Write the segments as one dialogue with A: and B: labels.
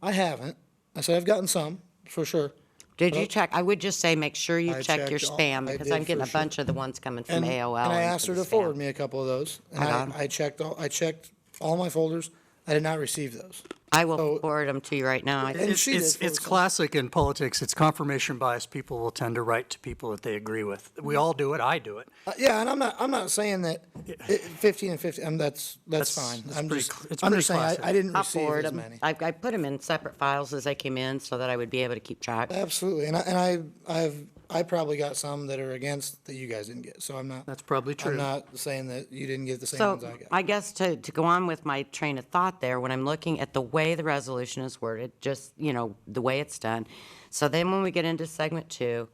A: I haven't. I said I've gotten some, for sure.
B: Did you check? I would just say, make sure you
A: I
B: check your
A: checked all-
B: spam,
A: I
B: because
A: did
B: I'm getting
A: for
B: a
A: sure.
B: bunch of the ones coming from
A: And-
B: AOL.
A: And I
B: into
A: asked her
B: the
A: to
B: spam.
A: forward me a couple of those. And I,
B: Okay.
A: I checked all, I checked all my folders. I did not receive those.
B: I will
A: so-
B: forward them to you right now. I think
A: And
C: It's,
A: she did
C: it's,
A: forward
C: it's
A: some.
C: classic in politics. It's confirmation bias. People will tend to write to people that they agree with. We all do it. I do it.
A: Uh, Yeah, and I'm not, I'm not saying that it- fifteen and fifteen, um, that's, that's
C: That's-
A: fine.
C: that's
A: I'm
C: pretty
A: just,
C: cl- it's
A: I'm
C: pretty
A: just saying, I,
C: classic.
A: I didn't
B: I'll
A: receive
B: forward
A: as
B: them.
A: many.
B: I, I put them in separate files as they came in, so that I would be able to keep track.
A: Absolutely, and I, and I, I've, I probably got some that are against that you guys didn't get, so I'm not.
C: That's probably
A: I'm
C: true.
A: not saying that you didn't get the same
B: So
A: ones I got.
B: I guess to, to go on with my train of thought there, when I'm looking at the way the resolution is worded, just, you know, the way it's done. So then when we get into segment two,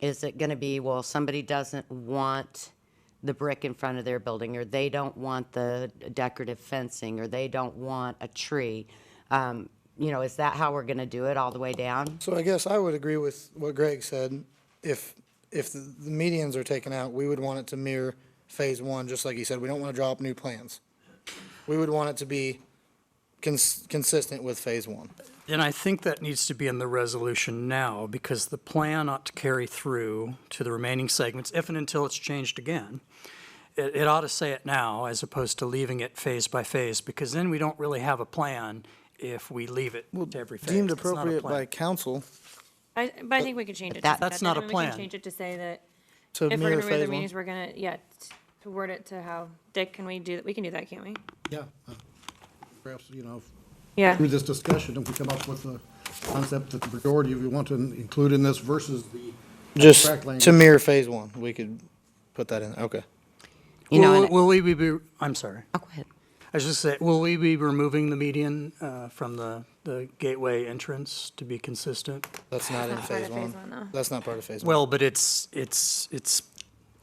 B: is it going to be, well, somebody doesn't want the brick in front of their building, or they don't want the decorative fencing, or they don't want a tree? Um, You know, is that how we're going to do it all the way down?
A: So I guess I would agree with what Greg said. If, if the the medians are taken out, we would want it to mirror phase one, just like he said, we don't want to draw up new plans. We would want it to be cons- consistent with phase one.
C: And I think that needs to be in the resolution now because the plan ought to carry through to the remaining segments if and until it's changed again. It, it ought to say it now as opposed to leaving it phase by phase because then we don't really have a plan if we leave it to every phase.
A: Deemed
C: It's not a
A: appropriate
C: plan.
A: by council
D: I, but I think we could change it. to
B: That-
D: that,
C: That's not
D: and
C: a
D: then We
C: plan.
D: can change it to say that
A: to
D: if we're
A: mirror
D: gonna read the
A: phase one.
D: meetings, we're gonna, yeah, t- to word it to how, Dick, can we do, we can do that, can't we?
E: Yeah. uh, Perhaps, you know,
D: Yeah.
E: through this discussion, if we come up with a concept that the majority of you want to include in this versus the. abstract
A: Just to
E: language.
A: mirror phase one, we could put that in, there. okay.
B: You know,
C: Will-
B: and-
C: Will we be, I'm sorry.
B: Oh, go ahead.
C: I was just say, will we be removing the median uh, from the, the gateway entrance to be consistent?
A: That's not in
D: not part
A: phase
D: of
A: one.
D: phase one, though.
A: That's not part of phase one.
C: Well, but it's, it's, it's,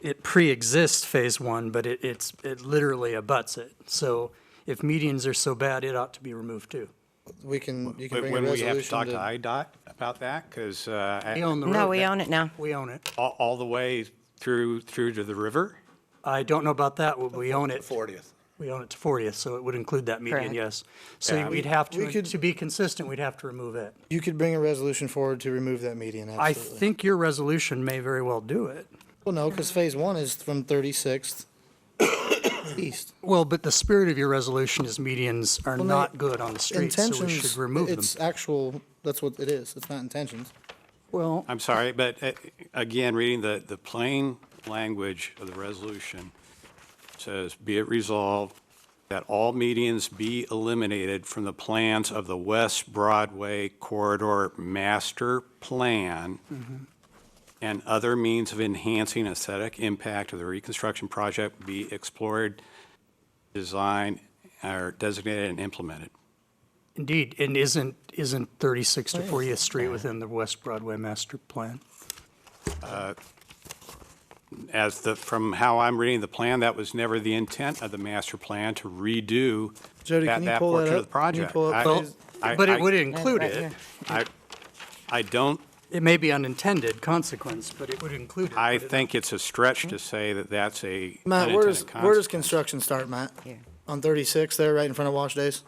C: it pre-exists Phase One, but it, it's, it literally abuts it. So if medians are so bad, it ought to be removed too.
A: We can, you can
F: But
A: bring a
F: when we have to
A: resolution
F: talk to
A: to,
F: IDOT about that, because
C: We own the road.
B: No, we
C: now.
B: own it now.
C: We own it.
F: all, all the way through, through to the river?
C: I don't know about that, but we own it.
F: 40th.
C: We own it to 40th, so it would include that median,
B: Correct.
C: yes. So
F: Yeah.
C: we'd have
A: We
C: to,
A: could-
C: to be consistent, we'd have to remove it.
A: you could bring a resolution forward to remove that median,
C: I
A: absolutely.
C: think your resolution may very well do it.
A: Well, no, because phase one is from thirty-sixth east.
C: Well, but the spirit of your resolution is medians are
A: Well, no,
C: not good on the street, so we should
A: Intentions,
C: remove them.
A: it's actual, that's what it is. It's not intentions.
C: Well,
F: I'm sorry, but uh, again, reading the, the plain language of the resolution says, "Be it resolved that all medians be eliminated from the plans of the West Broadway Corridor Master Plan and other means of enhancing aesthetic impact of the reconstruction project be explored, designed, or designated and implemented."
C: indeed, and isn't, isn't 36 to 40th Street within the West Broadway master plan?
F: as the, from how I'm reading the plan, that was never the intent of the master plan to redo
A: Jody,
F: that,
A: can you
F: that
A: pull that
F: portion of
A: up?
F: the
A: Can you
F: project.
A: pull up
F: I-
A: Well, phase-
F: I-
C: But
F: I-
C: it would include
B: Right
C: it.
B: here.
F: I, I don't,
C: It may be unintended consequence, but it would include it.
F: I
C: but it-
F: think it's a stretch to say that that's a
A: Matt, where does,
F: unintended
A: where does
F: consequence.
A: construction start, Matt?
B: Here.
A: On thirty-six there, right in front of Wash Days?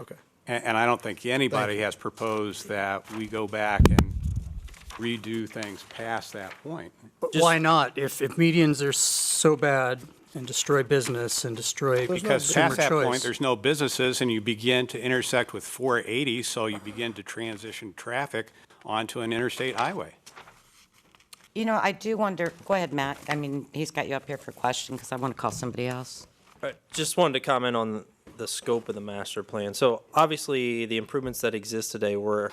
A: Okay.
F: And, and I don't think anybody
A: Thank you.
F: has proposed that we go back and redo things past that point.
C: But Why not? If, if medians are so bad and destroy business and destroy
A: There's no
F: Because past
C: consumer
F: that point,
C: choice.
F: there's no businesses, and you begin to intersect with 480, so you begin to transition traffic onto an interstate highway.
B: You know, I do wonder, go ahead, Matt. I mean, he's got you up here for a question, because I want to call somebody else.
G: All right, just wanted to comment on the scope of the master plan. So obviously, the improvements that exist today were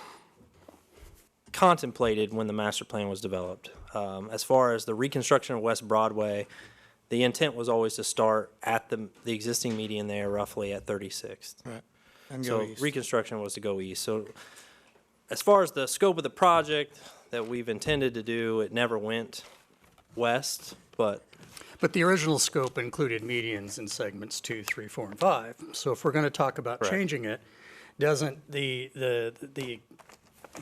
G: contemplated when the master plan was developed. Um, as far as the reconstruction of West Broadway, the intent was always to start at the, the existing median there roughly at 36th.
A: And go
G: So
A: east.
G: reconstruction was to go east. So as far as the scope of the project that we've intended to do, it never went west, but
C: But the original scope included medians in segments two, three, four, and five. So if we're going to talk about
G: Correct.
C: changing it, doesn't the, the, the,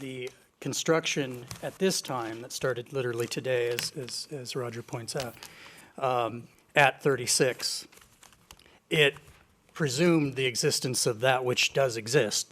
C: the construction at this time that started literally today, as, as, as Roger points out, um, at 36, it presumed the existence of that which does exist,